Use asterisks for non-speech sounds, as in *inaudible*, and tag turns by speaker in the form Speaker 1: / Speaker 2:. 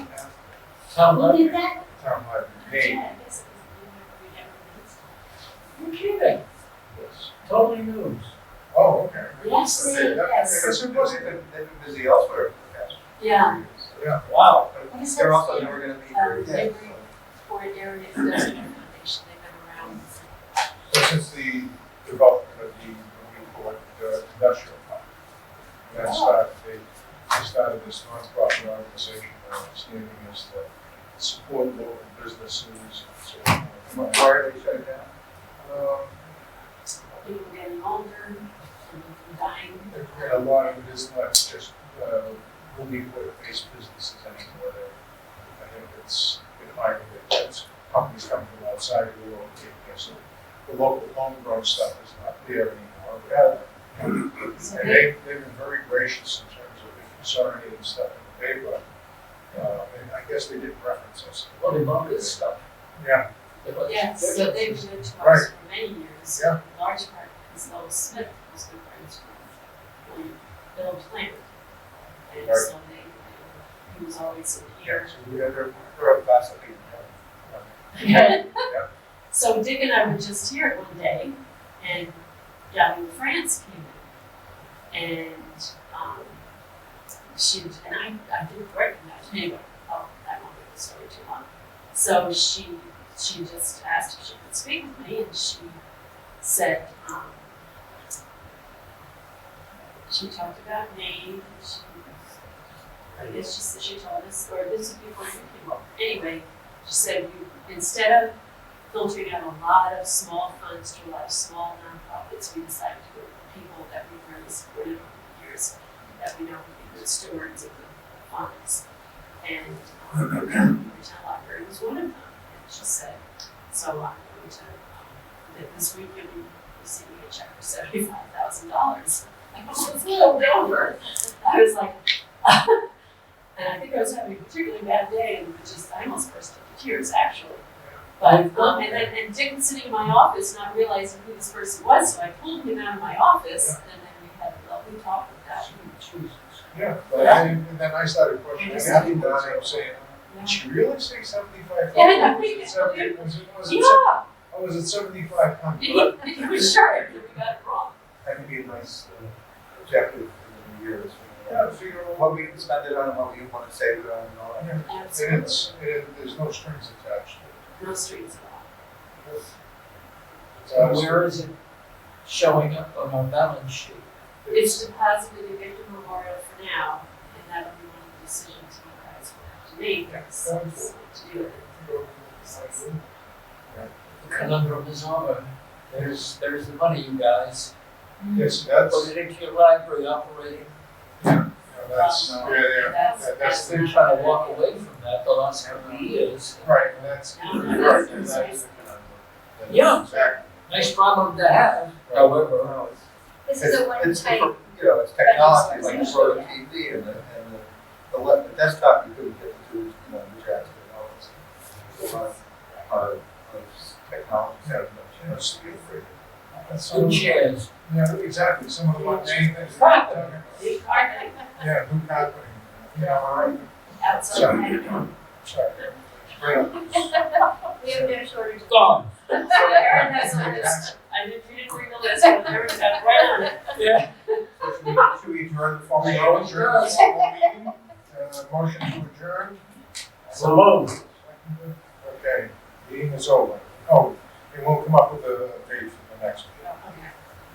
Speaker 1: Tom
Speaker 2: Who
Speaker 1: Lev-
Speaker 2: did that?
Speaker 1: Tom Levin, hey, you're kidding,
Speaker 3: Yes.
Speaker 1: totally news.
Speaker 3: Oh, okay.
Speaker 2: Yes,
Speaker 3: Okay,
Speaker 2: they-
Speaker 3: that-
Speaker 2: yes.
Speaker 3: Because they've been, they've been busy elsewhere for the past
Speaker 2: Yeah,
Speaker 3: few years, so, yeah.
Speaker 1: Wow,
Speaker 2: I guess
Speaker 3: But they're
Speaker 2: that's
Speaker 3: also
Speaker 2: the,
Speaker 3: never gonna be
Speaker 2: um,
Speaker 3: very dead,
Speaker 2: every-
Speaker 3: so.
Speaker 2: for area of those information, they've been around.
Speaker 3: So since the development of the, what we call it, uh, industrial park, and that started, they, they started this nonprofit organization, my understanding is that support local businesses and so on.
Speaker 1: Why
Speaker 3: are they shutting down? Um,
Speaker 2: People getting older and dying.
Speaker 3: and a lot of it is not just, uh, relief-based businesses anymore. I think it's been highly, it's companies coming from outside of the world, taking it, so the local homegrown stuff is not there anymore. But, uh,
Speaker 2: So
Speaker 3: And
Speaker 2: they,
Speaker 3: they, they've been very gracious in terms of consolidating stuff in the paper. Uh, and I guess they did reference us.
Speaker 1: well, they love this stuff.
Speaker 3: Yeah.
Speaker 1: They love-
Speaker 2: yes,
Speaker 1: they
Speaker 2: so
Speaker 1: love
Speaker 2: they've
Speaker 1: this.
Speaker 2: been to us
Speaker 3: Right.
Speaker 2: for many years.
Speaker 3: Yeah.
Speaker 2: in Large part because Lowell Smith was good friends with um, Bill Plant. And
Speaker 3: Right.
Speaker 2: so they, he was always in here.
Speaker 3: So we had their, their class of people.
Speaker 2: *laughs* So Dick and I were just here one day, and Gabby France came in, and um, she and I, I didn't recognize her anyway. Oh, I won't make the story too long. So she she just asked if she could speak with me, and she said um, she talked about me. She, I guess she said she told us, or this is before you came over. Anyway, she said you instead of filtering out a lot of small funds to a lot of small nonprofits, we decided to go with people that we've really supported over the years, that we know would be good stewards of the funds. And um, retail library was one of them, and she said, so I'm going to, um, that this week you'll be receiving a check for seventy-five thousand dollars. I was a little over, I was like, and I think I was having a particularly bad day, and was just, I almost burst into tears, actually. But, um, and then, and Dick was sitting in my office not realizing who this person was, so I pulled him out of my office, and then we had a lovely talk about
Speaker 1: Jesus.
Speaker 3: Yeah, but I, and then I started questioning,
Speaker 2: Yes.
Speaker 3: after that, I'm saying,
Speaker 2: that.
Speaker 3: did she really say seventy-five?
Speaker 2: Yeah, no,
Speaker 3: Was it seventy, was it, was it, se-
Speaker 2: Yeah,
Speaker 3: oh, was it seventy-five hundred?
Speaker 2: he, he was sure, that we got it wrong.
Speaker 4: That could be a nice uh, objective in the years. you
Speaker 3: Yeah,
Speaker 4: know,
Speaker 3: figure out what
Speaker 4: What we can spend it on, and what we want to save it on, and all that.
Speaker 3: And
Speaker 2: Absolutely,
Speaker 3: it's, it, there's no strings attached
Speaker 2: no strings at
Speaker 3: to it.
Speaker 1: So Uh, where is it showing up on our balance sheet?
Speaker 2: all. It's deposited in Victor Memorial for now, and that'll be one of the decisions you guys will have to make, is is what to do with it.
Speaker 1: The conundrum is over. There's, there's the money, you guys.
Speaker 3: Yes, that's,
Speaker 1: Put
Speaker 3: you
Speaker 1: it into your library operating.
Speaker 3: know, that's, yeah,
Speaker 2: Um,
Speaker 3: yeah,
Speaker 2: That's,
Speaker 3: that-
Speaker 2: that's.
Speaker 3: that's
Speaker 1: They've been
Speaker 2: not-
Speaker 1: trying to walk away from that the last couple of years.
Speaker 3: right, and that's.
Speaker 2: No, no,
Speaker 3: right,
Speaker 2: that's-
Speaker 3: that's-
Speaker 4: That's-
Speaker 1: Yeah.
Speaker 3: Exactly.
Speaker 1: Nice problem to have, however.
Speaker 4: No, it's-
Speaker 5: This is a
Speaker 4: it's-
Speaker 5: one-time,
Speaker 4: You know, it's technology, like you wrote a TV and the, and the, the le- the desktop you couldn't get to, you know, the jazz and all this. It's a lot of, of, of technology, that much, you know,
Speaker 3: That's the upgrade. That's
Speaker 1: Two
Speaker 3: some,
Speaker 1: chairs.
Speaker 3: yeah, exactly, some of the mundane things. that we're talking
Speaker 1: Profit.
Speaker 3: about.
Speaker 2: You are
Speaker 3: Yeah, who got me? Yeah, all right,
Speaker 2: outside.
Speaker 3: Sorry. sorry. Right.
Speaker 5: we have no shortage.
Speaker 1: Gone.
Speaker 2: So Aaron has a list. I didn't, you didn't bring the list, but Aaron got right on it.
Speaker 1: Yeah.
Speaker 3: So Should we- should we adjourn the
Speaker 5: *laughs*
Speaker 3: formal,
Speaker 1: We always
Speaker 3: adjourn the
Speaker 1: do.
Speaker 3: formal meeting? Uh, motion to adjourn?
Speaker 1: So long.
Speaker 3: Seconded. Okay, meeting is over. Oh, and we'll come up with a date for the next meeting.